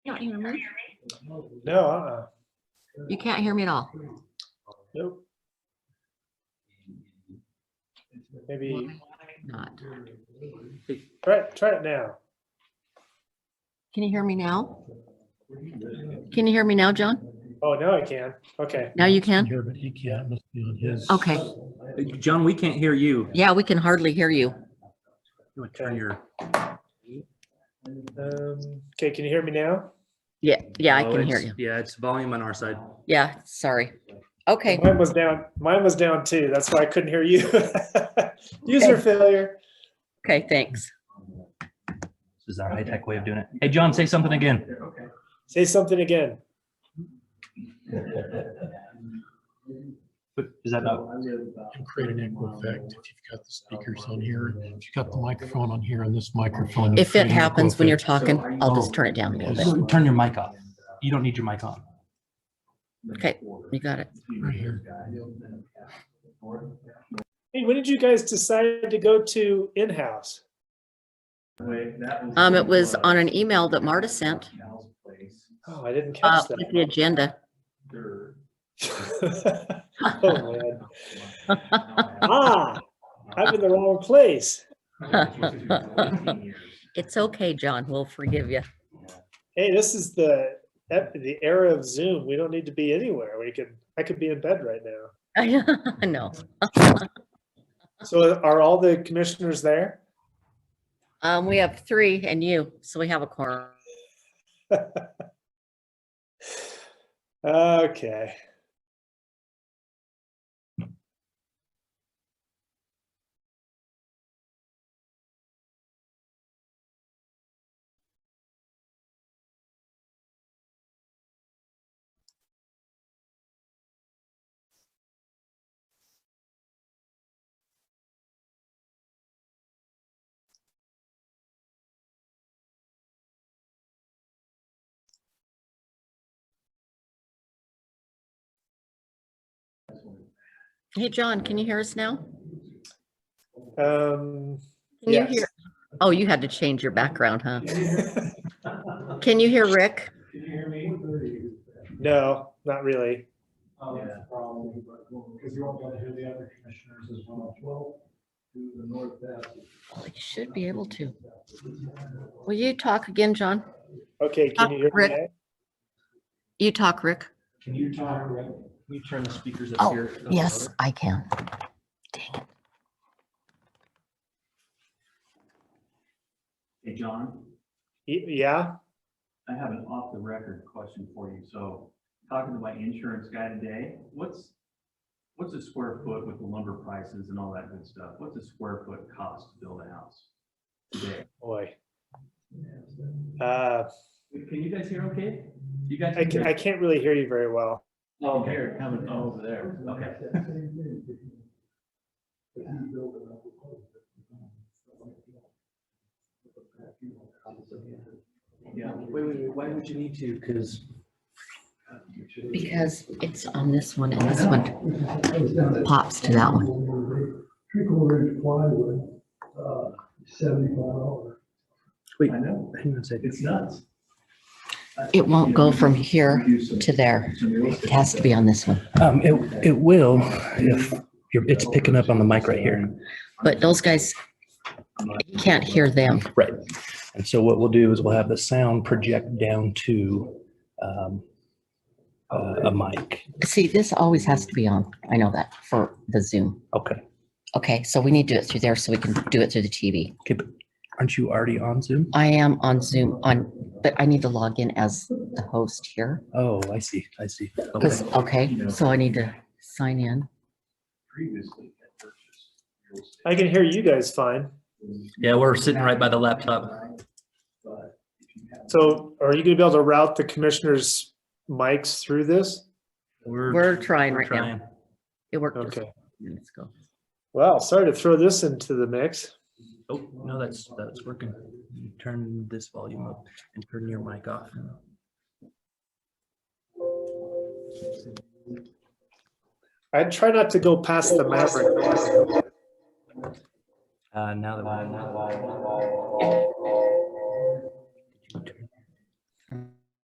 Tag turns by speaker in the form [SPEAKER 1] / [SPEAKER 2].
[SPEAKER 1] Can you hear me?
[SPEAKER 2] No, uh-uh,
[SPEAKER 1] You can't hear me at all.
[SPEAKER 2] nope. Maybe,
[SPEAKER 1] Not.
[SPEAKER 2] try, it- try it now.
[SPEAKER 1] Can you hear me now? Can you hear me now, John?
[SPEAKER 2] Oh, now I can. Okay.
[SPEAKER 1] Now you can?
[SPEAKER 3] Here, but he can't, must be on his.
[SPEAKER 1] Okay.
[SPEAKER 4] John, we can't hear you.
[SPEAKER 1] Yeah, we can hardly hear you.
[SPEAKER 4] You wanna turn your-
[SPEAKER 2] Um, okay, can you hear me now?
[SPEAKER 1] Yeah, yeah, I
[SPEAKER 4] Oh,
[SPEAKER 1] can hear you.
[SPEAKER 4] it's- Yeah, it's volume on our side.
[SPEAKER 1] Yeah, sorry. Okay,
[SPEAKER 2] Mine was down, mine was down too. That's why I couldn't hear you. User failure.
[SPEAKER 1] okay, thanks.
[SPEAKER 4] This is our high-tech way of doing it. Hey, John, say something again.
[SPEAKER 2] Say something again.
[SPEAKER 4] But Is that not?
[SPEAKER 3] And create an echo effect if you've got the speakers on here, if you've got the microphone on here and this microphone.
[SPEAKER 1] If
[SPEAKER 3] create
[SPEAKER 1] it
[SPEAKER 3] an echo
[SPEAKER 1] happens when you're
[SPEAKER 3] effect.
[SPEAKER 1] talking, I'll just turn it down a little bit.
[SPEAKER 4] Turn your mic off. You don't need your mic on.
[SPEAKER 1] Okay, you got it.
[SPEAKER 3] Right here.
[SPEAKER 2] Hey, when did you guys decide to go to in-house?
[SPEAKER 1] Um, it was on an email that Marta sent,
[SPEAKER 2] Oh, I didn't
[SPEAKER 1] uh,
[SPEAKER 2] catch
[SPEAKER 1] with the agenda.
[SPEAKER 2] that. Oh man. Ah, I'm in the wrong place.
[SPEAKER 1] It's okay, John, we'll forgive you.
[SPEAKER 2] Hey, this is the, ep- the era of Zoom. We don't need to be anywhere. We can, I could be in bed right now.
[SPEAKER 1] I know.
[SPEAKER 2] So are all the commissioners there?
[SPEAKER 1] Um, we have three and you, so we have a quorum.
[SPEAKER 2] Okay.
[SPEAKER 1] Hey, John, can you hear us now?
[SPEAKER 2] Um,
[SPEAKER 1] Can you
[SPEAKER 2] Yes.
[SPEAKER 1] hear? Oh, you had to change your background, huh? Can you hear Rick?
[SPEAKER 2] no, not really.
[SPEAKER 1] Well, You should be able to. Will you talk again, John?
[SPEAKER 2] Okay, can you hear me?
[SPEAKER 1] Rick.
[SPEAKER 2] now?
[SPEAKER 1] You talk, Rick.
[SPEAKER 4] Can you talk, Can you turn the speakers
[SPEAKER 1] Oh,
[SPEAKER 4] up here?
[SPEAKER 1] Yes, I can. Dang it.
[SPEAKER 5] Hey, John,
[SPEAKER 2] Y- Yeah,
[SPEAKER 5] I have an off the record question for you. So talking to my insurance guy today, what's, what's a square foot with the lumber prices and all that good stuff? What's a square foot cost to build a house? today?
[SPEAKER 2] boy. Uh,
[SPEAKER 5] Can you guys hear okay? You guys?
[SPEAKER 2] I can, I can't really hear you very well.
[SPEAKER 5] Oh, here, coming over there. Okay. Yeah.
[SPEAKER 4] Wait, wait, wait, why would you need to? Because
[SPEAKER 1] Because it's on this one and this one pops to that one.
[SPEAKER 6] Three quarter inch plywood, uh, seventy-five dollars.
[SPEAKER 4] Wait.
[SPEAKER 5] I know,
[SPEAKER 4] hang on a second.
[SPEAKER 5] it's nuts.
[SPEAKER 1] It won't go from here to there. It has to be on this one.
[SPEAKER 4] Um, it, it will if you're, it's picking up on the mic right here.
[SPEAKER 1] But those guys, you can't hear them.
[SPEAKER 4] Right. And so what we'll do is we'll have the sound project down to, um, uh, a mic.
[SPEAKER 1] See, this always has to be on. I know that for the Zoom.
[SPEAKER 4] Okay.
[SPEAKER 1] Okay, so we need to do it through there so we can do it through the TV.
[SPEAKER 4] Okay, but aren't you already on Zoom?
[SPEAKER 1] I am on Zoom on, but I need to log in as the host here.
[SPEAKER 4] Oh, I see, I see. Okay.
[SPEAKER 1] 'Cause- okay, so I need to sign in.
[SPEAKER 5] Previously had purchased real estate.
[SPEAKER 2] I can hear you guys fine.
[SPEAKER 4] Yeah, we're sitting right by the laptop.
[SPEAKER 2] So are you gonna be able to route the commissioners' mics through this?
[SPEAKER 1] We're trying
[SPEAKER 4] we're
[SPEAKER 1] right now.
[SPEAKER 4] trying.
[SPEAKER 1] It worked. this
[SPEAKER 2] Okay.
[SPEAKER 1] time. Let's go.
[SPEAKER 2] Well, sorry to throw this into the mix.
[SPEAKER 4] Oh, no, that's, that's working. Turn this volume up and turn your mic off.
[SPEAKER 2] I try not to go past the Maverick.
[SPEAKER 4] Uh, now that.